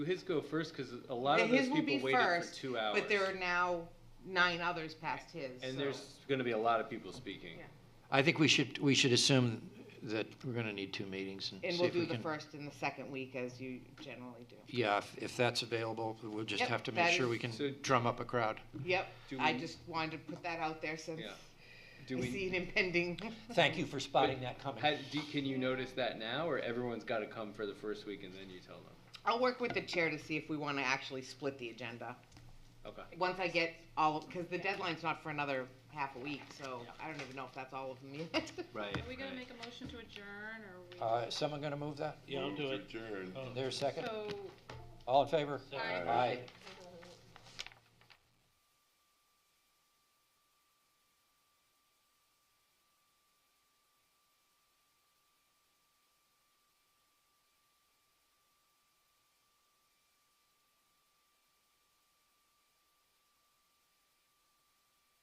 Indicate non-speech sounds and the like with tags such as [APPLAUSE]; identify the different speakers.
Speaker 1: His go first because a lot of those
Speaker 2: His will
Speaker 1: people
Speaker 2: be
Speaker 1: waited
Speaker 2: first,
Speaker 1: for two hours.
Speaker 2: but there are now nine others past his.
Speaker 1: and
Speaker 2: so-
Speaker 1: there's going to be a lot of people speaking.
Speaker 2: Yeah.
Speaker 3: I think we should, we should assume that we're gonna need two meetings and
Speaker 2: And
Speaker 3: see
Speaker 2: we'll
Speaker 3: if we
Speaker 2: do the
Speaker 3: can.
Speaker 2: first and the second week as you generally do.
Speaker 3: Yeah, if, if that's available, we'll just
Speaker 2: Yep,
Speaker 3: have to
Speaker 2: that
Speaker 3: make sure
Speaker 2: is-
Speaker 3: we can
Speaker 1: So-
Speaker 3: drum up a crowd.
Speaker 2: Yep,
Speaker 1: Do
Speaker 2: I
Speaker 1: we-
Speaker 2: just wanted to put that out there since
Speaker 1: Yeah. Do
Speaker 2: I
Speaker 1: we?
Speaker 2: see an
Speaker 1: [LAUGHS]
Speaker 2: impending.
Speaker 3: Thank you for spotting that coming.
Speaker 1: How, do, can you notice that now, or everyone's got to come for the first week and then you tell them?
Speaker 2: I'll work with the chair to see if we want to actually split the agenda.
Speaker 1: Okay.
Speaker 2: Once I get all, because the deadline's not for another half a week, so I don't even know if that's all of them yet. [LAUGHS]
Speaker 1: Right.
Speaker 4: Are we gonna make a motion to adjourn, or we?
Speaker 3: Uh, is someone gonna move that?
Speaker 5: Yeah, I'll do it.
Speaker 6: Adjourn.
Speaker 3: There's a second?
Speaker 4: So,
Speaker 3: All in favor?
Speaker 4: Aye.
Speaker 3: Aye.